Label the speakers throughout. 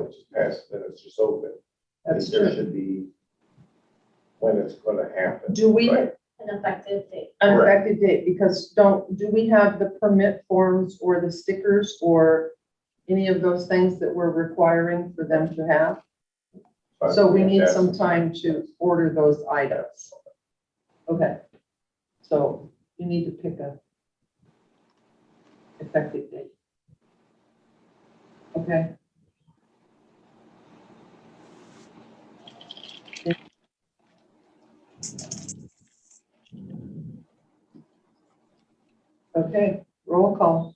Speaker 1: which is past, then it's just open.
Speaker 2: That's
Speaker 1: There
Speaker 2: true.
Speaker 1: should be when it's gonna happen.
Speaker 2: Do we,
Speaker 1: Right.
Speaker 2: an
Speaker 3: an effective date.
Speaker 1: Correct.
Speaker 2: effective date, because don't, do we have the permit forms or the stickers or any of those things that we're requiring for them to have?
Speaker 1: But
Speaker 2: So we need
Speaker 1: that's-
Speaker 2: some time to order those items. Okay. So you need to pick a effective date. Okay. Okay, roll call.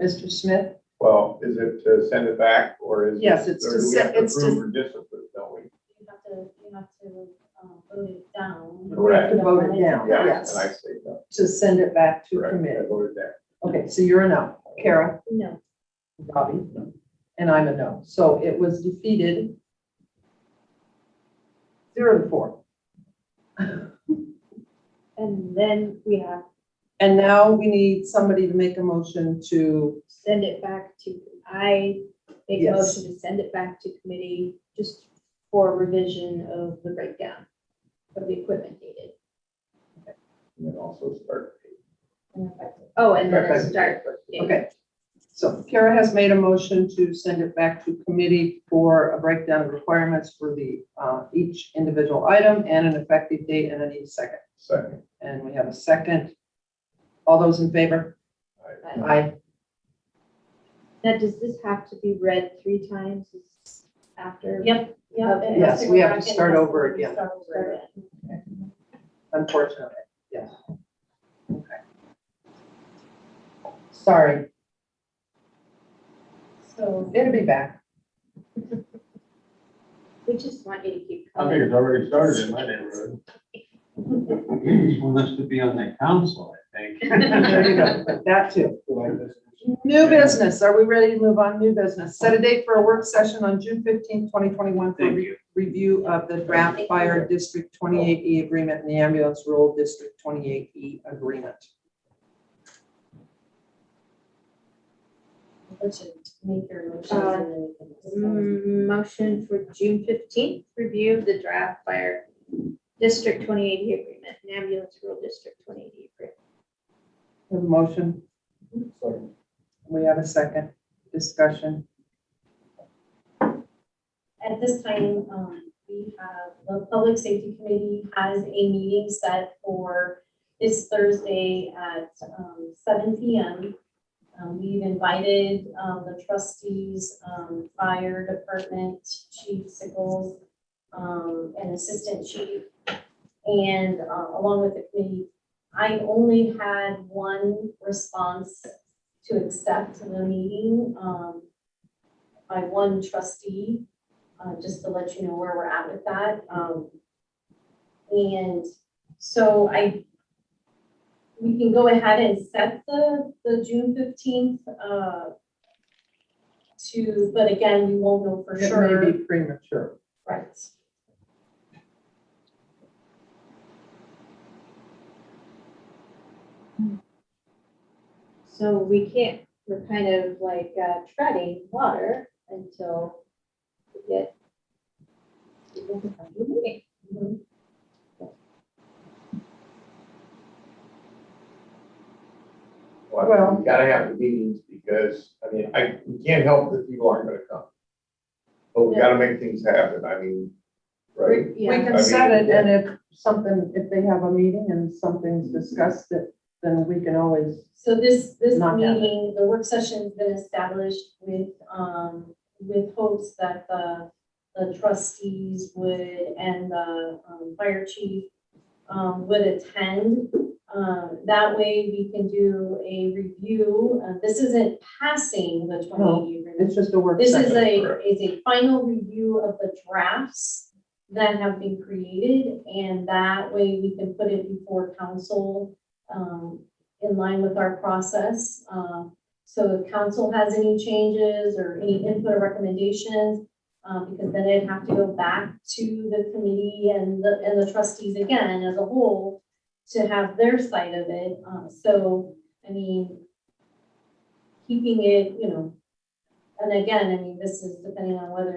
Speaker 2: Mr. Smith?
Speaker 1: Well, is it to send it back or is? it-
Speaker 2: Yes, it's
Speaker 1: or
Speaker 2: to
Speaker 1: do we
Speaker 2: se-
Speaker 1: have to
Speaker 2: it's to-
Speaker 1: Approve or disapprove, don't we?
Speaker 3: You have to, you have to, um, vote it down.
Speaker 2: We have to vote it down,
Speaker 1: Yeah,
Speaker 2: yes,
Speaker 1: And I say no.
Speaker 2: to send it back to
Speaker 1: Correct. I
Speaker 2: committee.
Speaker 1: voted that.
Speaker 2: Okay, so you're a no. Carol?
Speaker 3: No,
Speaker 2: Bobby, and I'm a no. So it was defeated. Zero to four.
Speaker 3: and then we have
Speaker 2: And now we need somebody to make a motion to,
Speaker 3: send it back to, I make a
Speaker 2: Yes.
Speaker 3: motion to send it back to committee just for revision of the breakdown of the equipment needed.
Speaker 1: And then also start.
Speaker 3: and effective- Oh, and then a
Speaker 2: Perfect.
Speaker 3: start date.
Speaker 2: okay. So Kara has made a motion to send it back to committee for a breakdown of requirements for the, uh, each individual item and an effective date, and I need a second.
Speaker 1: Second,
Speaker 2: And we have a second. All those in favor?
Speaker 3: But
Speaker 2: Aye.
Speaker 3: Now, does this have to be read three times after?
Speaker 4: Yep, yep.
Speaker 3: Okay.
Speaker 4: it has
Speaker 2: Yes,
Speaker 4: go
Speaker 2: we have
Speaker 4: back
Speaker 2: to
Speaker 4: and
Speaker 2: start
Speaker 4: it has to
Speaker 2: over again.
Speaker 4: start over again.
Speaker 2: Unfortunately, yes. Okay. Sorry.
Speaker 4: So,
Speaker 2: It'll be back.
Speaker 3: We just want you to keep
Speaker 5: I think
Speaker 3: coming.
Speaker 5: it's already started in my neighborhood. They just want us to be on that council, I
Speaker 2: There you
Speaker 5: think.
Speaker 2: go. That too. New business. Are we ready to move on? New business. Set a date for a work session on June fifteenth, twenty twenty-one for
Speaker 5: Thank
Speaker 2: re-
Speaker 5: you.
Speaker 2: review of the draft fire district twenty-eight E agreement and the ambulance rural district twenty-eight E agreement.
Speaker 4: let's just make your motions
Speaker 3: Uh,
Speaker 4: and then we can discuss.
Speaker 3: Mm, Motion for June fifteenth, review of the draft fire District twenty eighty agreement, and ambulance rural district twenty eighty agreement.
Speaker 2: We have a motion. We have a second discussion.
Speaker 4: At this time, um, we have, the Public Safety Committee has a meeting set for this Thursday at, um, seven P M. Um, we've invited, um, the trustees, um, fire department, Chief Sickles, um, and Assistant Chief. And, uh, along with the committee, I only had one response to accept the meeting, um, by one trustee uh, just to let you know where we're at with that. Um, and so I, we can go ahead and set the, the June fifteenth, uh, to, but again, we won't know for
Speaker 2: It
Speaker 4: sure.
Speaker 2: may be premature.
Speaker 4: Right.
Speaker 3: So we can't, we're kind of like uh, treading water until we get. we get the final meeting.
Speaker 4: Mhm.
Speaker 2: Well-
Speaker 1: Well, you gotta have the meetings because, I mean, I, we can't help that people aren't gonna come. But we gotta make things happen, I mean, right?
Speaker 2: We
Speaker 3: Yeah.
Speaker 2: can set it and if something, if they have a meeting and something's discussed, that- then we can always
Speaker 4: So this, this
Speaker 2: Not gathered.
Speaker 4: meeting, the work session's been established with, um, with hopes that the, the trustees would and the, um, fire chief, um, would attend. Um, that way we can do a review. Uh, this isn't passing the twenty-eight agreement.
Speaker 2: It's just a work
Speaker 4: This is
Speaker 2: session.
Speaker 4: a,
Speaker 1: correct.
Speaker 4: is a final review of the drafts that have been created, and that way we can put it before council, um, in line with our process. Um, so if council has any changes or any input or recommendations, um, because then it'd have to go back to the committee and the, and the trustees again as a whole to have their side of it. Um, so, I mean, keeping it, you know, and again, I mean, this is depending on whether